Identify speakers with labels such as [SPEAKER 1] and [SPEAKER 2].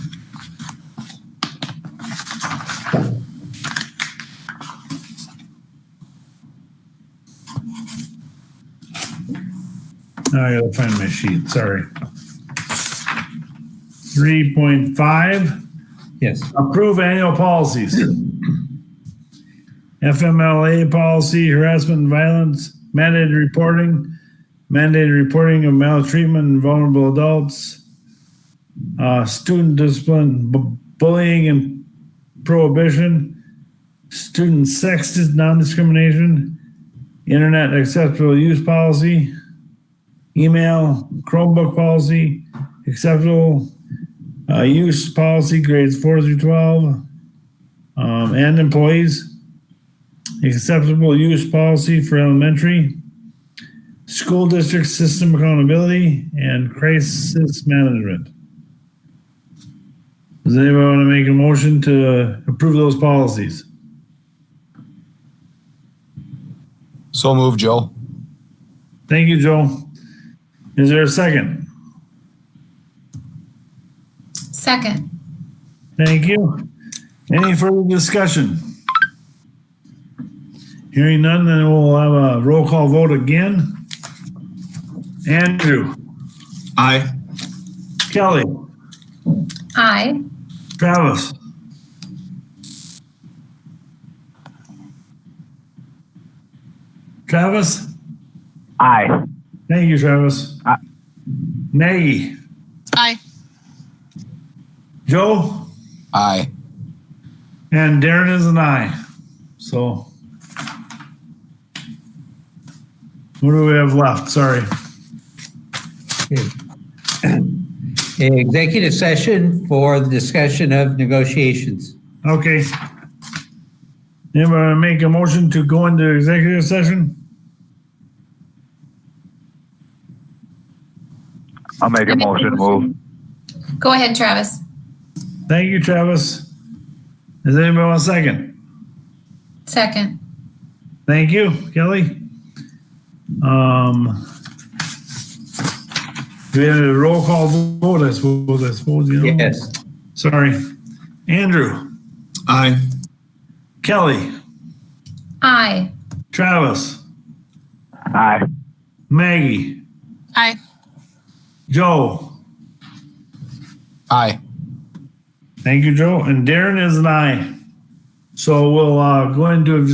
[SPEAKER 1] Now I gotta find my sheet, sorry. Three point five,
[SPEAKER 2] Yes.
[SPEAKER 1] approve annual policies. FMLA policy, harassment and violence, mandated reporting, mandated reporting of maltreatment and vulnerable adults, uh, student discipline, bu- bullying and prohibition, student sex dis- non-discrimination, internet acceptable use policy, email, Chromebook policy, acceptable uh, use policy grades four through twelve, um, and employees. Acceptable use policy for elementary, school district system accountability, and crisis management. Does anybody want to make a motion to approve those policies?
[SPEAKER 3] So move, Joe.
[SPEAKER 1] Thank you, Joe. Is there a second?
[SPEAKER 4] Second.
[SPEAKER 1] Thank you. Any further discussion? Hearing none, then we'll have a roll call vote again. Andrew,
[SPEAKER 3] Aye.
[SPEAKER 1] Kelly,
[SPEAKER 4] Aye.
[SPEAKER 1] Travis, Travis?
[SPEAKER 5] Aye.
[SPEAKER 1] Thank you, Travis.
[SPEAKER 5] Aye.
[SPEAKER 1] Maggie,
[SPEAKER 4] Aye.
[SPEAKER 1] Joe?
[SPEAKER 3] Aye.
[SPEAKER 1] And Darren is an aye. So. What do we have left? Sorry.
[SPEAKER 2] Executive session for the discussion of negotiations.
[SPEAKER 1] Okay. Anybody wanna make a motion to go into executive session?
[SPEAKER 5] I'll make a motion to move.
[SPEAKER 4] Go ahead, Travis.
[SPEAKER 1] Thank you, Travis. Does anybody want a second?
[SPEAKER 4] Second.
[SPEAKER 1] Thank you, Kelly. Um. We had a roll call vote, I suppose, I suppose, you know?
[SPEAKER 2] Yes.
[SPEAKER 1] Sorry. Andrew,
[SPEAKER 3] Aye.
[SPEAKER 1] Kelly,
[SPEAKER 4] Aye.
[SPEAKER 1] Travis,
[SPEAKER 5] Aye.
[SPEAKER 1] Maggie.
[SPEAKER 4] Aye.
[SPEAKER 1] Joe.
[SPEAKER 3] Aye.
[SPEAKER 1] Thank you, Joe. And Darren is an aye. So we'll uh, go into